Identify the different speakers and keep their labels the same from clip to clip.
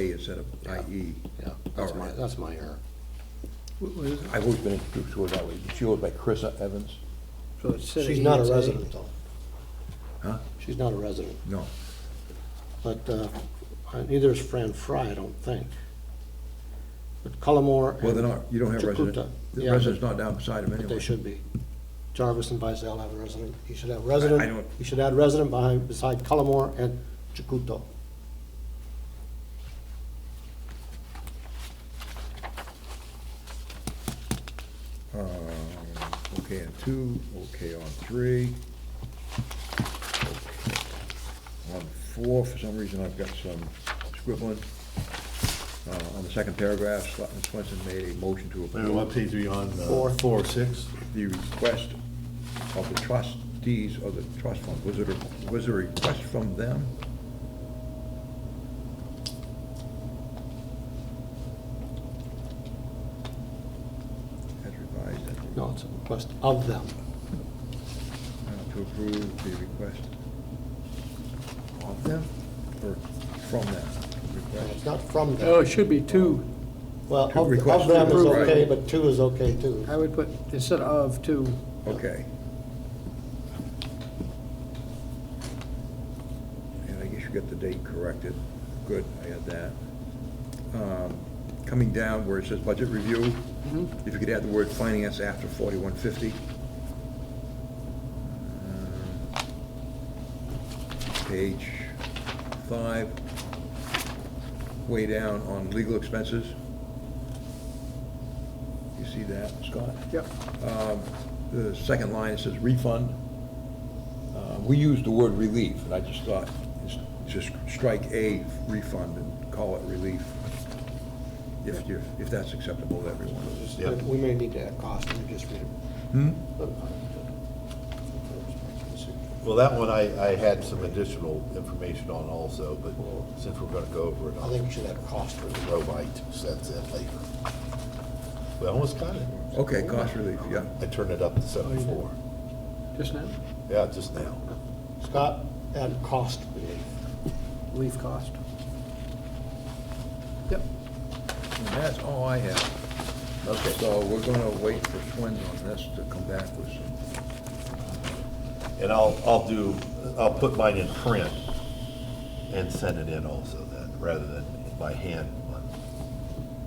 Speaker 1: IE instead of
Speaker 2: Yeah.
Speaker 1: IE.
Speaker 2: Yeah, that's
Speaker 1: All
Speaker 2: my,
Speaker 1: right.
Speaker 2: that's my error.
Speaker 3: I've always been introduced to her that way. She goes by Carissa Evans.
Speaker 4: So it's E city.
Speaker 2: She's not a
Speaker 4: it's
Speaker 2: resident, though.
Speaker 1: Huh?
Speaker 2: She's not a resident.
Speaker 1: No.
Speaker 2: But uh, neither is Fran Fry, I don't think. But Cullimore.
Speaker 1: Well, they're
Speaker 2: and
Speaker 1: not, you don't have
Speaker 2: Chukuta,
Speaker 1: residents. The
Speaker 2: yeah,
Speaker 1: resident's
Speaker 2: but-
Speaker 1: not down beside him
Speaker 2: But
Speaker 1: anyway.
Speaker 2: they should be. Jarvis and Vizel have a resident. You should have resident.
Speaker 1: I don't-
Speaker 2: You should add resident behind, beside Cullimore and Chukuto.
Speaker 1: Um, Okay, on two, okay, on three. On four, for some reason, I've got some scribbling. Uh, On the second paragraph, Selectman Swenson made a motion to
Speaker 5: Wait, What
Speaker 1: approve
Speaker 5: page are you on? Uh,
Speaker 2: Four.
Speaker 5: Four, six?
Speaker 1: the request of the trustees of the trust fund. Was it, a was it a request from them? As revised. as revised.
Speaker 2: No, it's a request of them.
Speaker 1: Uh, to approve the request of them or from them?
Speaker 2: It's
Speaker 1: Request.
Speaker 2: not from
Speaker 4: Oh,
Speaker 2: them.
Speaker 4: it should be two.
Speaker 2: Well,
Speaker 1: Two
Speaker 2: of-
Speaker 1: requests
Speaker 2: of them is
Speaker 4: approved.
Speaker 2: okay, but two is okay, too.
Speaker 4: I would put, instead of two,
Speaker 1: Okay. And I guess you got the date corrected. Good, I had that. Um, Coming down where it says budget review, if you could add the word finance after forty-one fifty. Uh, Page five, way down on legal expenses. You see that, Scott?
Speaker 4: yep,
Speaker 1: Um, The second line, it says refund. Uh, We use the word relief, and I just thought, it's- just strike A refund and call it relief, if you, if that's acceptable to everyone.
Speaker 5: Yeah.
Speaker 2: uh, We may need to add cost, let me just read
Speaker 1: Hmm?
Speaker 2: it.
Speaker 5: Well, that one I, I had some additional information on also, but since we're gonna go over it,
Speaker 2: I
Speaker 5: I'll
Speaker 2: think we should add cost.
Speaker 5: throw my two cents in later. We almost got it.
Speaker 1: Okay, cost relief, yeah.
Speaker 5: I turned it up to
Speaker 2: Oh,
Speaker 5: seventy-four.
Speaker 4: just now,
Speaker 5: Yeah, just now.
Speaker 2: Scott, add cost relief.
Speaker 4: leave cost. Yep,
Speaker 1: And that's all I have.
Speaker 5: Okay.
Speaker 1: So we're gonna wait for Swins on this to come back with some,
Speaker 5: And I'll, I'll do, I'll put mine in print and send it in also then, rather than by hand.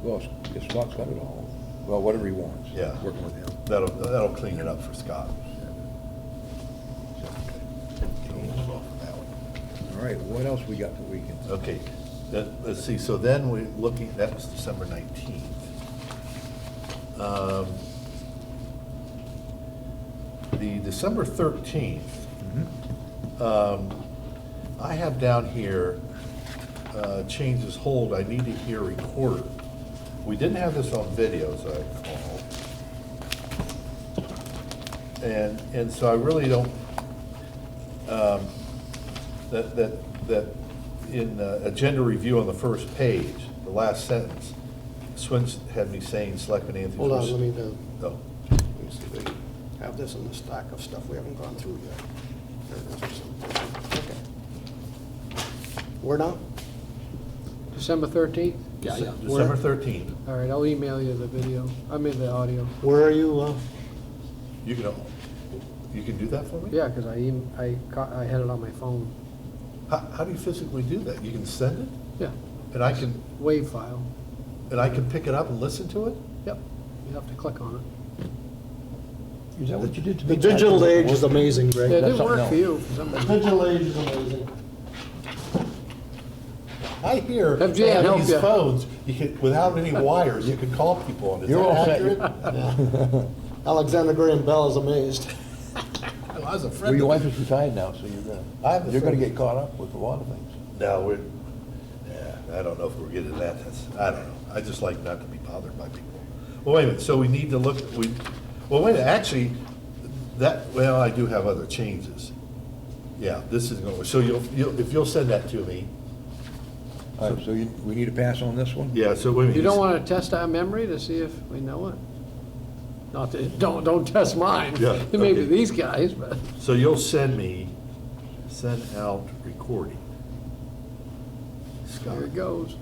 Speaker 1: well, it's Scott's got it all, well, whatever he wants.
Speaker 5: Yeah.
Speaker 1: Working with him.
Speaker 5: That'll, that'll clean it up for Scott.
Speaker 1: All right, what else we got that we can?
Speaker 5: Okay, that, let's see, so then we're looking, that was December nineteenth. Um, The December thirteenth, um, I have down here, uh, changes hold, I need to hear recorder. We didn't have this on video, as I recall. And, and so I really don't, um, that, that, that in uh, agenda review on the first page, the last sentence, Swin's had me saying, Selectman Anthony.
Speaker 2: Hold on,
Speaker 5: Pursu-"
Speaker 2: let me, uh,
Speaker 5: Oh,
Speaker 2: let me see if I have this in the stack of stuff we haven't gone through yet. There it is or something. Okay. Where now?
Speaker 4: December thirteenth?
Speaker 5: December thirteenth,
Speaker 4: All right, I'll email you the video, I mean the audio.
Speaker 2: Where are you, uh,
Speaker 5: you can, you can do that for me?
Speaker 4: Yeah, because I, em- I caught, I had it on my phone,
Speaker 5: How, how do you physically do that? You can send it,
Speaker 4: yeah,
Speaker 5: and I can,
Speaker 4: wave file,
Speaker 5: and I can pick it up and listen to it?
Speaker 4: yep, you have to click on it.
Speaker 3: Is that what you did to me?
Speaker 2: the digital age is amazing, Greg.
Speaker 4: Yeah, It
Speaker 3: that's
Speaker 4: didn't
Speaker 3: something
Speaker 4: work for
Speaker 3: else.
Speaker 4: you, for some reason.
Speaker 2: Digital age is amazing.
Speaker 5: I hear on
Speaker 4: FJ, help
Speaker 5: these
Speaker 4: ya.
Speaker 5: phones, you can, without any wires, you can call people on it. Is
Speaker 3: You're
Speaker 5: that
Speaker 3: all set.
Speaker 5: accurate?
Speaker 2: Alexander Graham Bell is amazed.
Speaker 5: I was afraid.
Speaker 3: Well, your wife is retired now, so you're
Speaker 5: I have
Speaker 3: gonna,
Speaker 5: a
Speaker 3: you're gonna
Speaker 5: friend-
Speaker 3: get caught up with a lot of things.
Speaker 5: No, we're, yeah, I don't know if we're getting that, that's, I don't know, I just like not to be bothered by people. Well, wait a minute, so we need to look, we, well, wait, a minute, actually, that, well, I do have other changes. Yeah, this is going, so you'll, you'll, if you'll send that to me,
Speaker 1: All right, so you, we need to pass on this one?
Speaker 5: yeah, so wait a minute.
Speaker 4: You don't want to test our memory to see if we know it? Not that, don't, don't test mine.
Speaker 5: Yeah,
Speaker 4: It may be
Speaker 5: okay.
Speaker 4: these guys, but.
Speaker 5: So you'll send me, send out recording. Scott,
Speaker 4: There it goes.